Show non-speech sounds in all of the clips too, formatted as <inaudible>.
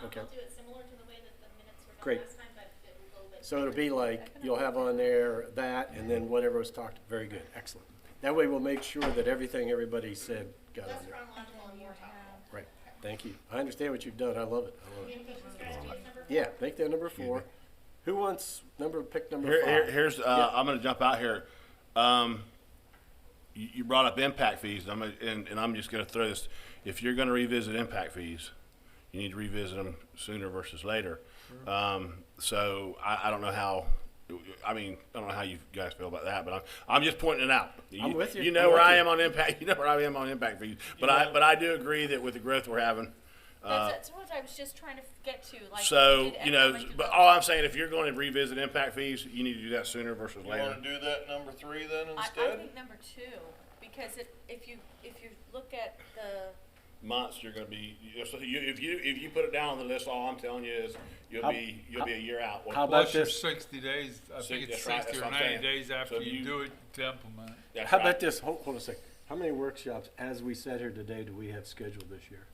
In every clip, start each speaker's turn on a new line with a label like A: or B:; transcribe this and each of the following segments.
A: Um,
B: Okay.
A: I'll do it similar to the way that the minutes were
B: Great.
A: done last time, but it will go with.
B: So it'll be like, you'll have on there that, and then whatever was talked, very good, excellent. That way we'll make sure that everything everybody said got on
A: Less
B: there.
A: chronological and more topical.
B: Right, thank you. I understand what you've done, I love it, I love it.
A: Communication strategy is number four.
B: Yeah, make that number four. Who wants number, pick number
C: Here, here,
B: five?
C: here's uh,
B: Yeah.
C: I'm going to jump out here. Um, you, you brought up impact fees. and I'm gonna, and, and I'm just going to throw this. If you're going to revisit impact fees, you need to revisit them sooner versus later. Um, so I, I don't know how. I mean, I don't know how you guys feel about that, but I'm, I'm just pointing it out. You,
B: I'm with you.
C: You know
B: I'm
C: where
B: with
C: I
B: you.
C: am on impact. <laughs> You know where I am on impact fees. But I but I do agree that with the growth we're having,
D: That's, that's what I was just trying to get to. Like,
C: Uh, so
D: did
C: you know.
D: economic
C: But
D: development-
C: all I'm saying, if you're going to revisit impact fees, you need to do that sooner versus
E: You
C: later.
E: wanna do that number three then
D: I, I
E: instead?
D: think number two, because if, if you if you look at the
C: months you're going to be you- so you, if you if you put it down on the list all i'm telling you is you'll
B: How-
C: be you'll be a year out
B: how about-
F: Plus your
B: this-
F: sixty days, I think
C: Six-
F: it's
C: that's right,
F: sixty
C: that's
F: or
C: what I'm saying.
F: ninety days
C: So
F: after
C: if
F: you
C: you-
F: do it to implement it.
C: That's
B: How
C: right.
B: about this, hold, hold a second. How many workshops, as we sat here today, do we have scheduled this year?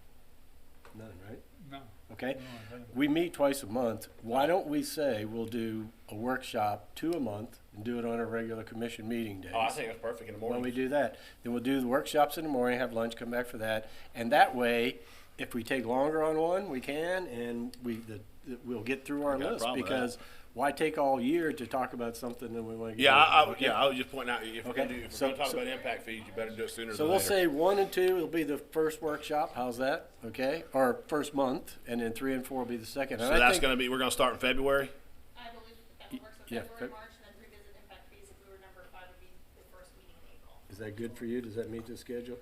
B: None, right?
F: No.
B: Okay?
F: no, I don't.
B: We meet twice a month. Why don't we say we'll do a workshop two a month and do it on our regular commission meeting days?
C: oh i think that's perfect in the
B: When
C: morning
B: we do that, then we'll do the workshops in the morning, have lunch, come back for that. And that way, if we take longer on one, we can, and we, the, the- we'll get through our
C: Got a
B: list.
C: problem with that.
B: Because why take all year to talk about something that we want to get?
C: yeah I,
B: rid
C: I,
B: of,
C: yeah
B: okay?
C: i was just pointing out if we're going
B: Okay,
C: to do if
B: so-
C: we're going to talk
B: so-
C: about impact fees you better do it sooner
B: So
C: than
B: we'll
C: later.
B: say one and two will be the first workshop, how's that? Okay, or first month, and then three and four will be the second.
C: so
B: And I
C: that's
B: think-
C: going to be we're going to start in february
A: I believe that that works, so
B: Yeah,
A: February,
B: Feb-
A: March, and then revisit impact fees if we were number five would be the first meeting in April.
B: Is that good for you? Does that meet the schedule?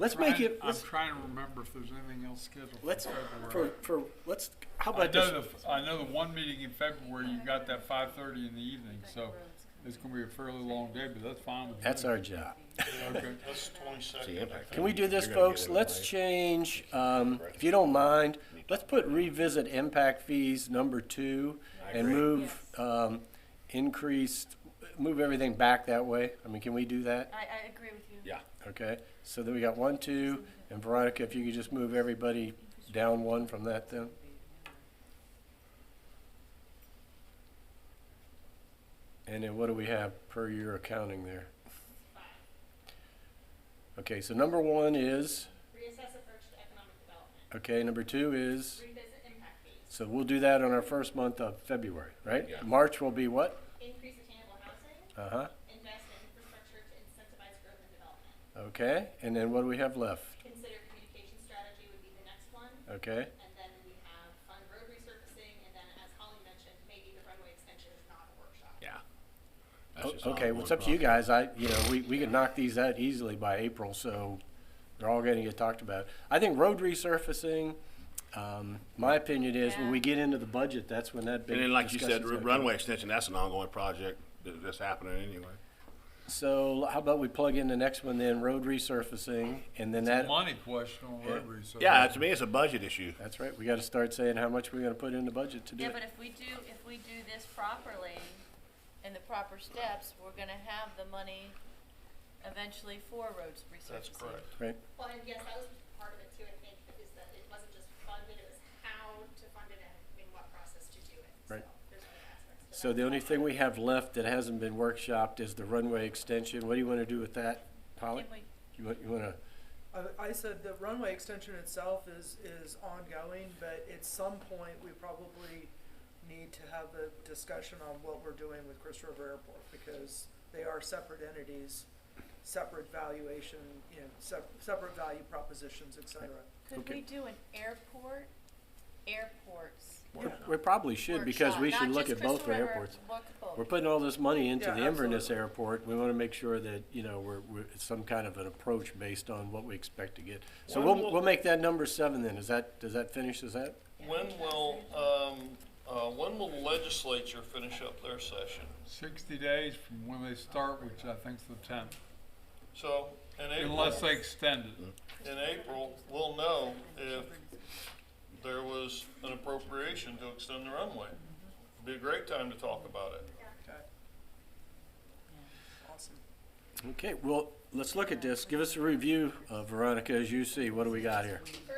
B: Let's make
F: Trying-
B: it,
F: I'm
B: let's,
F: trying to remember if there's anything else scheduled for
B: let's,
F: February.
B: for, for, let's, how
F: I
B: about this?
F: know the, I know the one meeting in February, you got that five thirty in the evening, so it's gonna be a fairly long day, but that's fine with me.
B: That's our job. <laughs>
F: Okay.
E: That's twenty-second.
C: See, impact
B: Can we
C: fees,
B: do this,
C: you're gonna get
B: folks?
C: it
B: Let's
C: right.
B: change, um, if you don't mind, let's put revisit impact fees number two and
C: agree.
B: move, um, increased, move everything back that way. I mean, can we do that?
D: I, I agree with you.
C: yeah
B: Okay, so then we got one, two, and Veronica, if you could just move everybody down one from that then. And then what do we have per year accounting there? Okay, so number one is,
A: Reassess approach to economic development,
B: okay, number two is,
A: revisit impact fees,
B: so we'll do that on our first month of February, right?
C: Yeah.
B: March will be what?
A: increase attainable housing,
B: Uh-huh,
A: invest in infrastructure to incentivize growth and development.
B: okay, and then what do we have left?
A: Consider communication strategy would be the next one,
B: Okay,
A: and then we have fund road resurfacing, and then as Holly mentioned, maybe the runway extension is not a workshop.
C: yeah
B: O-
C: That's just
B: Okay,
C: not
B: well, it's
C: one
B: up to you
C: problem.
B: guys. I, you know, we, we could knock these out easily by April, so they're all gonna get talked about. I think road resurfacing, um, my opinion is when we
D: Yeah.
B: get into the budget, that's when that big
C: and then like you said
B: discussion's gonna come.
C: runway extension that's an ongoing project that- that's happening anyway
B: So how about we plug in the next one then, road resurfacing, and then that,
F: Money question on road resurfacing.
C: yeah to me it's a budget issue
B: that's right, we gotta start saying how much we're gonna put in the budget to do
D: Yeah,
B: it.
D: but if we do if we do this properly, and the proper steps, we're gonna have the money eventually for roads resurfacing.
E: That's correct.
B: Right,
A: Well, and yes, that was part of it too, I think, is that it wasn't just funded, it was how to fund it and in what process to do it.
B: Right.
A: So there's other aspects to
B: so
A: that.
B: the only thing we have left that hasn't been workshopped is the runway extension. What do you wanna do with that, Polly?
D: Can we,
B: You want, you wanna,
G: I, I said the runway extension itself is, is ongoing, but at some point, we probably need to have a discussion on what we're doing with Chris River Airport, because they are separate entities, separate valuation, you know, sep- separate value propositions, et cetera.
D: could
B: Okay.
D: we do an airport, airports
G: Yeah.
B: we probably should, because we
D: workshop?
B: should
D: Not
B: look
D: just
B: at both
D: Crystal River,
B: airports.
D: look at both.
B: We're putting all this money into
G: Yeah,
B: the Inverness
G: absolutely.
B: Airport. We want to make sure that, you know, we're, we're, it's some kind of an approach based on what we expect to get. So
E: Why
B: we'll,
E: won't-
B: we'll make that number seven then. Is that, does that finish, is that?
E: When will, um, uh, when will the legislature finish up their session?
F: Sixty days from when they start, which I think's the tenth,
E: So, in April,
F: unless they extend it.
E: in April, we'll know if there was an appropriation to extend the runway. Be a great time to talk about it.
G: Okay. Awesome.
B: Okay, well, let's look at this. Give us a review, uh, Veronica, as you see. What do we got here?
A: For um,